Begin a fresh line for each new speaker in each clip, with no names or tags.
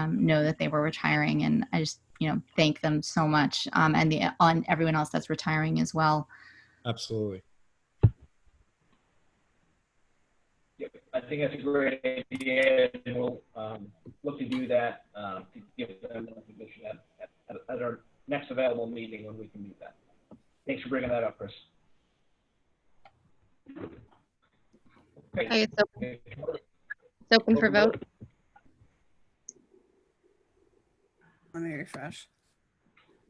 um, know that they were retiring, and I just you know thank them so much, um, and the on everyone else that's retiring as well.
Absolutely.
Yep, I think that's a great idea, and we'll um, look to do that um, to give them a position at, at, at our next available meeting when we can do that. Thanks for bringing that up, Chris.
Okay, it's open-
Okay.
it's open for vote.
Let me refresh.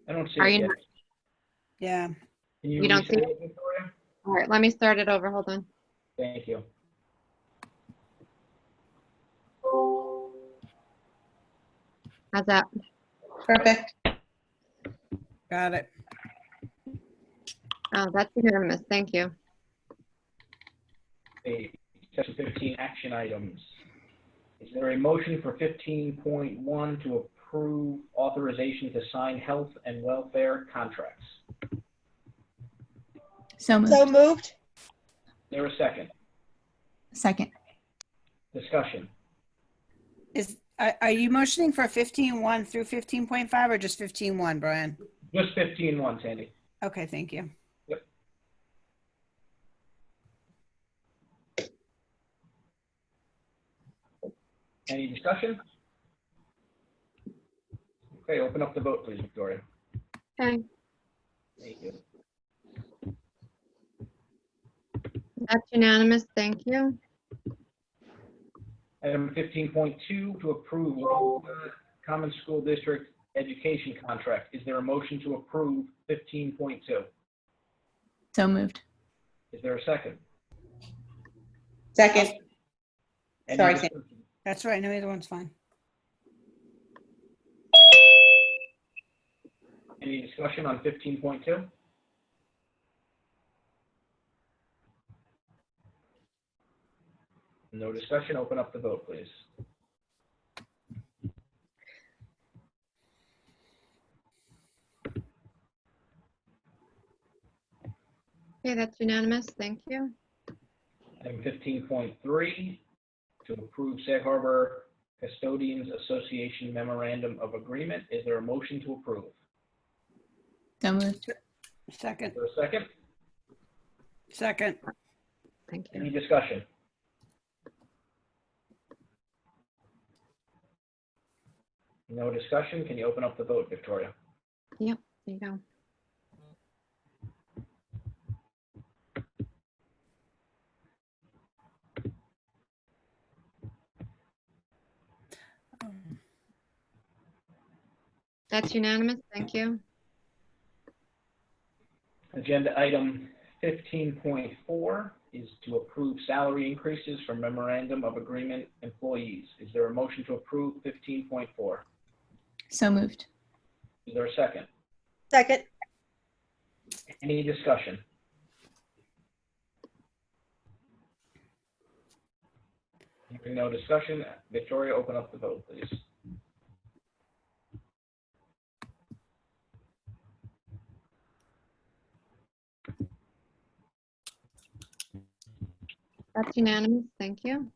I don't see
Are
it
you
yet.
Yeah,
Can you
you don't
reset
see-
it, Victoria?
All right, let me start it over. Hold on.
Thank you.
How's that?
Perfect.
got it.
Oh, that's unanimous. Thank you.
a section 15 action items. Is there a motion for 15.1 to approve authorization to sign health and welfare contracts? Is
So moved.
So moved.
there a second?
Second.
Discussion.
Is, are, are you motioning for fifteen one through fifteen point five or just fifteen one, Brian?
Just 15.1, Sandy.
Okay, thank you.
Any discussion? Okay, open up the vote, please, Victoria.
Okay,
Thank you.
that's unanimous. Thank you.
Item 15.2 to approve Wallingford Common School District Education Contract. Is there a motion to approve 15.2?
So moved.
Is there a second?
Second.
Any
Sorry, Sandy.
discussion?
That's right, no, either one's fine.
Any discussion on fifteen point two? No discussion, open up the vote, please.
Okay, that's unanimous. Thank you.
Item fifteen point three, to approve Sag Harbor Custodians Association Memorandum of Agreement. Is there a motion to approve?
So moved.
Second,
Is there a second?
second,
Thank you.
Any discussion? No discussion, can you open up the vote, Victoria?
There you go. That's unanimous. Thank you.
Agenda item fifteen point four is to approve salary increases for memorandum of agreement employees. Is there a motion to approve fifteen point four?
So moved.
Is there a second?
Second.
Any discussion? Hearing no discussion, Victoria, open up the vote, please.
That's unanimous. Thank you.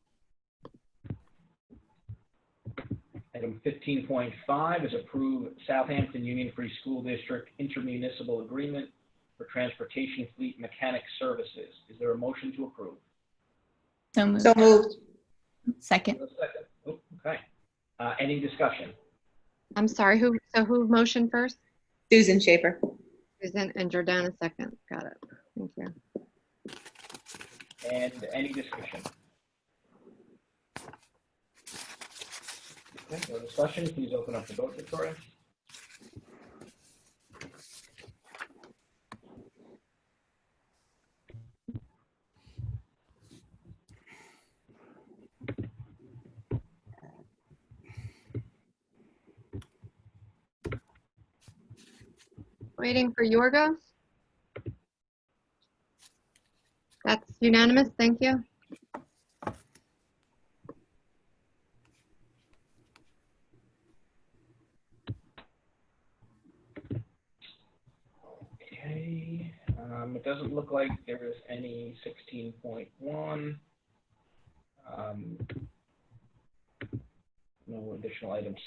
Item fifteen point five is approve Southampton Union Free School District intermunicipal agreement for transportation fleet mechanic services. Is there a motion to approve?
So moved.
So moved.
Second.
Is there a second? Oh, Okay. Uh, any discussion?
I'm sorry. Who, so who motioned first?
Susan Schaefer.
Susan and Jordana second. Got it. Thank you.
And any discussion? Okay, no discussion, please open up the vote, Victoria.
Waiting for Yorgos. That's unanimous. Thank you.
Okay, um, it doesn't look like there is any sixteen point one. Um, No additional items